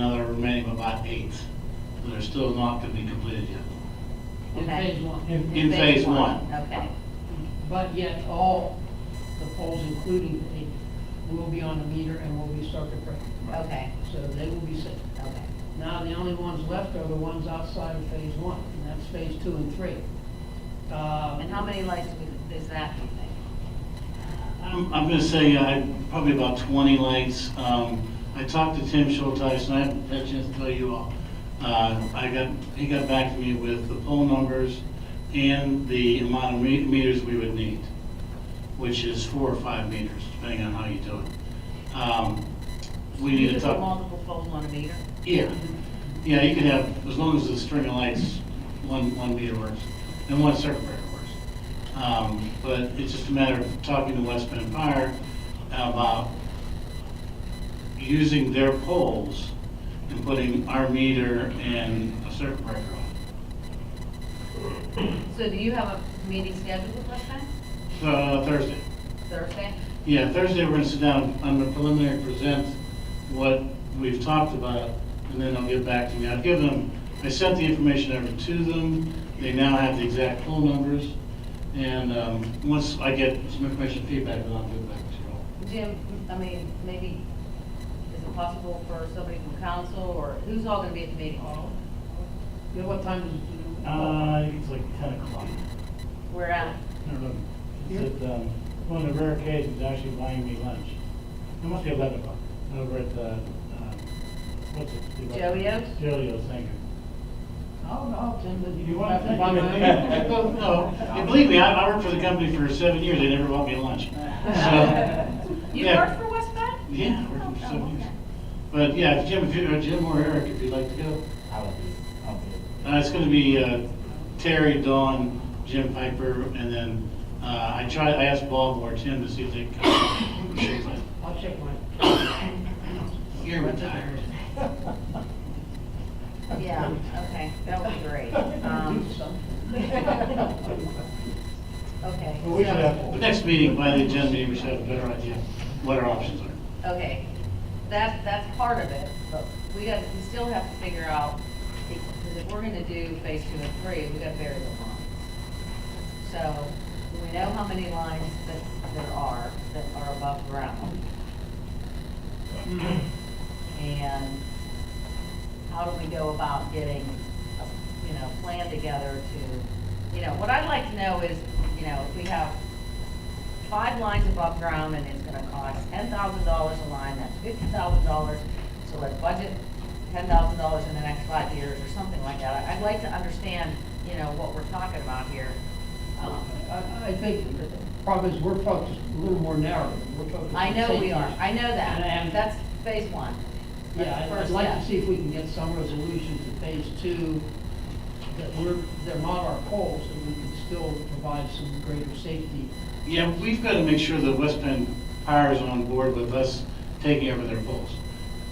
another remaining of about eight that are still not to be completed yet. in Okay. phase In- one. in phase one. Okay, But yet all the poles, including the, will be on the meter and will be circuit breaker. okay, So they will be safe. okay. Now, the only ones left are the ones outside of phase one, and that's phase two and three. Uh, And how many lights would- is that, do you think? I'm, I'm gonna say, uh, probably about twenty lights. Um, I talked to Tim Schulteis, and I haven't had a chance to tell you all. Uh, I got, he got back to me with the poll numbers and the amount of me- meters we would need, which is four or five meters, depending on how you do it. Um, we need You to could talk. put Multiple poles on a meter? Yeah, yeah, you could have, as long as the string of lights, one, one meter works, and one circuit breaker works. Um, but it's just a matter of talking to West Bend Fire about using their poles and putting our meter and a circuit breaker on. So do you have a meeting scheduled with us then, Uh, Thursday, Thursday? yeah, Thursday, we're gonna sit down, I'm gonna preliminary present what we've talked about, and then I'll get back to you. I've given them, I sent the information over to them, they now have the exact poll numbers, and, um, once I get some information feedback, then I'll get back to you all. Jim, I mean, maybe, is it possible for somebody from council, or who's all gonna be at the meeting? You know what time is it? Uh, Uh, it's like ten o'clock. We're at, I don't know. It's at, um, one of the rare occasions actually buying me lunch. It must be eleven o'clock, over at the, um, what's it? Joey-O's? Joey-O's, thank you. Oh, no, Tim, but You you want have to- to buy my No, no, and believe me, I, I worked for the company for seven years, they never bought me lunch. So, you Yeah. work for West Bend? yeah, I worked for seven years. But, yeah, Jim, if you, or Jim or Eric, if you'd like to go. I will be, I'll be. Uh, it's gonna be, uh, Terry, Dawn, Jim Piper, and then, uh, I tried, I asked Bob or Tim to see if they could come. I'll check mine. You're retired. Yeah, okay, that would be great. Um, Do Okay. Well, we should so- have- The next meeting, by the agenda meeting, we should have a better idea what our options are. Okay, that, that's part of it, but we got, we still have to figure out, because if we're gonna do phase two and three, we gotta vary the lines. So, we know how many lines that there are, that are above ground. And how do we go about getting, a, you know, plan together to, you know, what I'd like to know is, you know, if we have five lines above ground and it's gonna cost ten thousand dollars a line, that's fifty thousand dollars. So let's budget ten thousand dollars in the next five years or something like that. I'd like to understand, you know, what we're talking about here. Um, I, I think the problem is we're focused a little more narrow. We're focused I on know we safety are, issues. I know that, And- that's phase one. That's Yeah, the I'd- I'd first like to step. see if we can get some resolution to phase two, that we're, they're not our poles, and we can still provide some greater safety. Yeah, we've gotta make sure that West Penn Power is on board with us taking over their polls.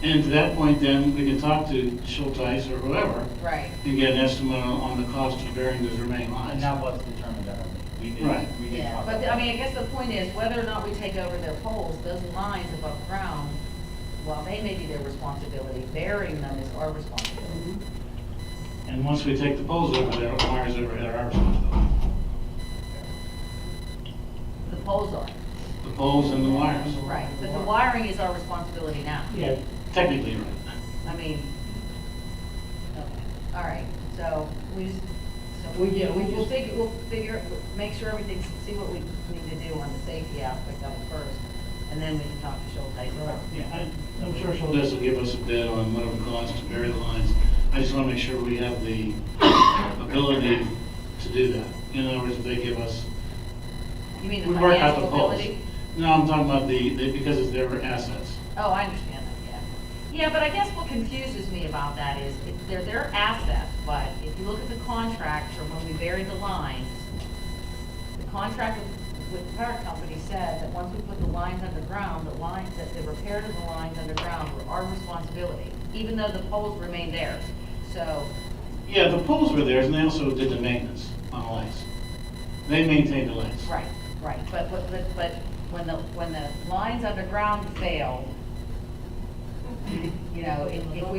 And to that point, then, we can talk to Schulteis or whoever Right, and get an estimate on- on the cost of burying those remaining And lines. that was determined at our meeting. We did, Right. we did yeah, talk but about I it. mean, I guess the point is, whether or not we take over their poles, those lines above ground, while they may be their responsibility, burying them is our responsibility. And once we take the poles over there, wires over there are our responsibility. The poles are. The poles and the wires, Right, but the wiring is our responsibility now. Yeah, technically, right. I mean, okay, all right, so we just, so we, We- yeah, we we'll just- figure, we'll figure, make sure everything's, see what we need to do on the safety aspect of it first, and then we can talk to Schulteis. yeah, I, I'm sure she'll. This will give us a bid on what it would cost to bury the lines. I just want to make sure we have the ability to do that. In other words, if they give us, You we mean the work out financial the poles. ability? No, I'm talking about the, the- because it's their assets. Oh, I understand that, yeah. Yeah, but I guess what confuses me about that is, it- they're their assets, but if you look at the contract from when we buried the lines, the contract with- with the power company said that once we put the lines underground, the lines, that the repair to the lines underground were our responsibility, even though the poles remained theirs. So, Yeah, the poles were theirs, and they also did the maintenance on the lights. They maintained the lights. right, right, but, but, but- but when the, when the lines underground failed, you know, if if we